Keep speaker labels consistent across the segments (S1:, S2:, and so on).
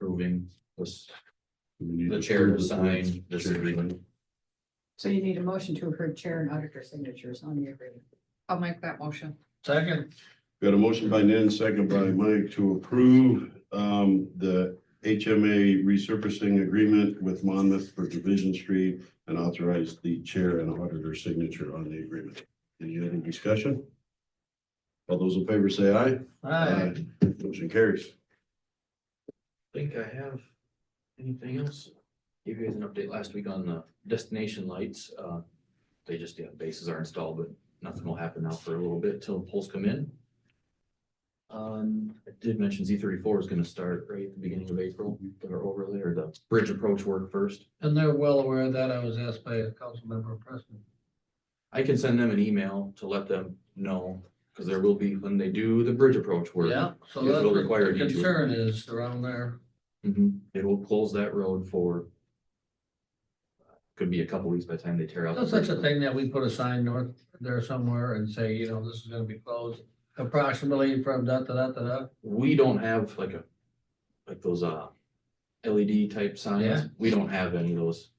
S1: moving this,
S2: The
S1: the chair to sign this agreement.
S3: So you need a motion to approve chair and auditor signatures on the agreement.
S4: I'll make that motion.
S1: Second.
S2: Got a motion by Nan, second by Mike to approve um the HMA resurfacing agreement with Monmouth for Division Street and authorize the chair and auditor signature on the agreement. Any other discussion? All those in favor say aye.
S1: I
S2: Motion carries.
S1: think I have anything else. Gave you guys an update last week on the destination lights. Uh, they just, yeah, bases are installed, but nothing will happen now for a little bit till the poles come in. Um, I did mention Z thirty-four is gonna start right at the beginning of April, their overlay or the bridge approach work first.
S5: And they're well aware of that. I was asked by a council member Preston.
S1: I can send them an email to let them know, because there will be, when they do the bridge approach work.
S5: Yeah, so
S1: Yes,
S5: that's
S1: it'll require
S5: the
S1: a detour.
S5: concern is around there.
S1: Mhm. it will close that road for. Could be a couple weeks by the time they tear out. the
S5: That's such
S1: bridge.
S5: a thing that we put a sign north there somewhere and say, you know, this is gonna be closed approximately from da, da, da, da, da.
S1: We don't have like a, like those uh LED type signs,
S5: Yeah.
S1: we don't have any of those.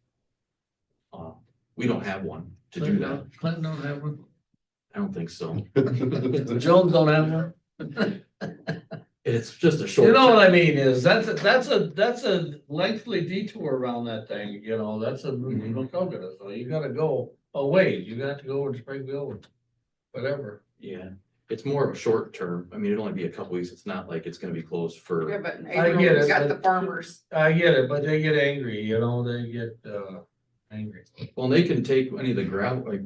S1: Uh, we don't have one to do
S5: Clinton
S1: that,
S5: don't- Clinton don't have one.
S1: I don't think so,
S5: Jones don't have one.
S1: it's just a short.
S5: You know what I mean is, that's, a that's a, that's a lengthy detour around that thing, you know, that's a,
S1: Mhm.
S5: little coconut, so you gotta go away. You got to go over to Springfield, or whatever.
S1: Yeah, it's more of a short term, I mean, it'll only be a couple weeks, it's not like it's gonna be closed for.
S4: Yeah, but in
S5: I
S4: April,
S5: get
S4: we
S5: it,
S4: got
S5: but-
S4: the farmers.
S5: I get it, but they get angry, you know, they get, uh, angry.
S1: Well, they can take any of the gravel, like.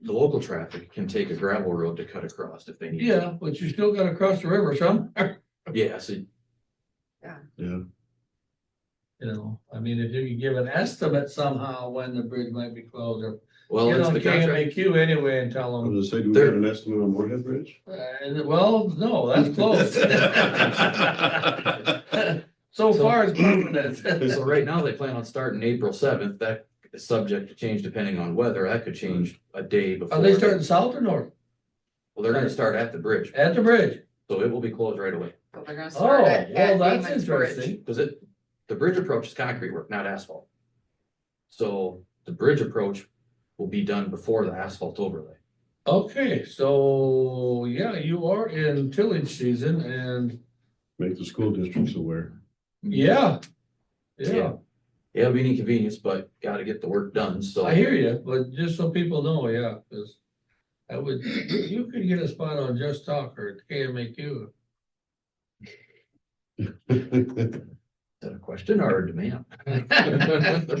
S1: The local traffic can take a gravel road to cut across if they need. to.
S5: Yeah, but you still gotta cross the river some,
S1: Yeah, so
S2: Yeah,
S5: you know, I mean, if you could give an estimate somehow when the bridge might be closed or.
S1: Well,
S5: You
S1: it's
S5: know,
S1: the contract.
S5: KMAQ anyway and tell
S2: I
S5: them,
S2: was gonna say, do we have an estimate on Morehead Bridge?
S5: uh, well, no, that's closed. So far it's permanent.
S1: So right now they plan on starting April seventh. That is subject to change depending on weather. That could change a day before.
S5: Are Oh, they starting south or north?
S1: Well, they're gonna start at the bridge,
S5: At the bridge?
S1: so it will be closed right away.
S4: so they're gonna
S5: Oh,
S4: start at-
S5: well,
S4: at
S5: that's
S4: Damon's Bridge.
S5: interesting.
S1: Cause it, the bridge approach is concrete work, not asphalt. So the bridge approach will be done before the asphalt overlay.
S5: Okay, so, yeah, you are in tillage season and,
S2: Make the school districts aware.
S5: yeah.
S1: Yeah.
S5: Yeah.
S1: Yeah, it'll be an inconvenience, but gotta get the work done, so.
S5: I hear you, but just so people know, yeah, because I would, you could get a spot on Just Talk or KMAQ.
S1: Is that a question or a demand?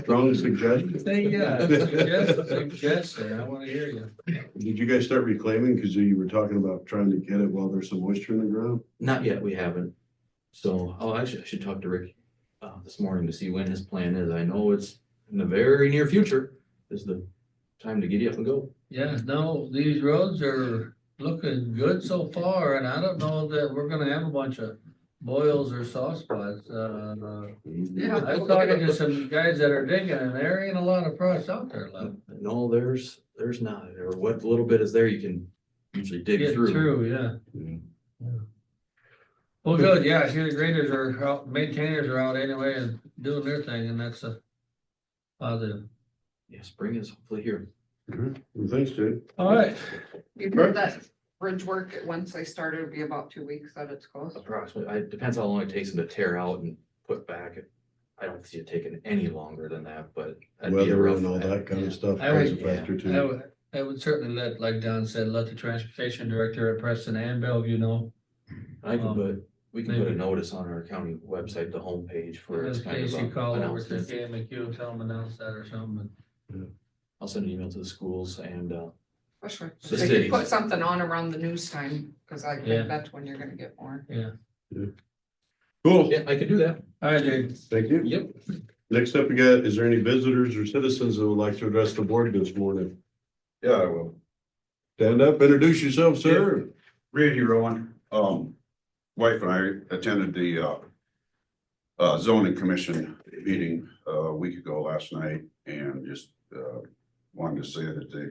S2: Strong suggestion.
S5: Say, yeah, suggest, suggestion, I want to hear you.
S2: Did you guys start reclaiming? Because you were talking about trying to get it while there's some moisture in the ground.
S1: Not yet, we haven't. So, oh, actually, I should talk to Rick uh this morning to see when his plan is. I know it's in the very near future is the time to get up and go.
S5: Yeah, no, these roads are looking good so far, and I don't know that we're gonna have a bunch of boils or soft spots, uh.
S4: Yeah.
S5: I was talking to some guys that are digging, and there ain't a lot of frost out there left.
S1: No, Uh, there's, there's not, or what little bit is there, you can usually dig
S5: Get
S1: through.
S5: through, yeah.
S2: Yeah.
S5: Well, good, yeah, I see the graders are out, maintainers are out anyway and doing their thing, and that's a positive.
S1: Yeah, spring is hopefully here.
S2: Good. Well, thanks, Jay.
S5: All right,
S4: You heard that bridge work, once they started, it'd be about two weeks that it's closed.
S1: Approximately, it depends how long it takes them to tear out and put back. I don't see it taking any longer than that, but. that'd be a
S2: Weather
S1: rough
S2: and all that
S1: act.
S2: kind of stuff
S5: I would-
S2: plays a factor
S5: I
S2: too.
S5: would, I would certainly let, like Don said, let the transportation director at Preston and Bellevue know.
S1: I can
S5: Um,
S1: put, we can put a
S5: maybe.
S1: notice on our county website, the homepage for.
S5: In
S1: this kind
S5: case
S1: of,
S5: you
S1: uh,
S5: call over to
S1: announcements.
S5: KMAQ and tell them announce that or something.
S1: I'll send an email to the schools and, uh,
S4: Especially,
S1: The
S4: so you
S1: cities.
S4: put something on around the news time, cause I
S5: Yeah.
S4: think that's when you're gonna get more.
S2: Cool.
S1: yeah, I can do that.
S5: All right, Jake.
S2: Thank you.
S1: Yep.
S2: Next up, we got, is there any visitors or citizens that would like to address the board this morning?
S6: Yeah, I will.
S2: Stand up, introduce yourself, sir.
S6: Randy Rowan, um, wife and I attended the, uh, uh, zoning commission meeting, uh, a week ago last night and just, uh, wanted to say that they,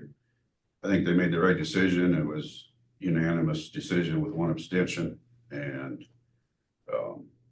S6: I think they made the right decision. It was unanimous decision with one abstention and, uh,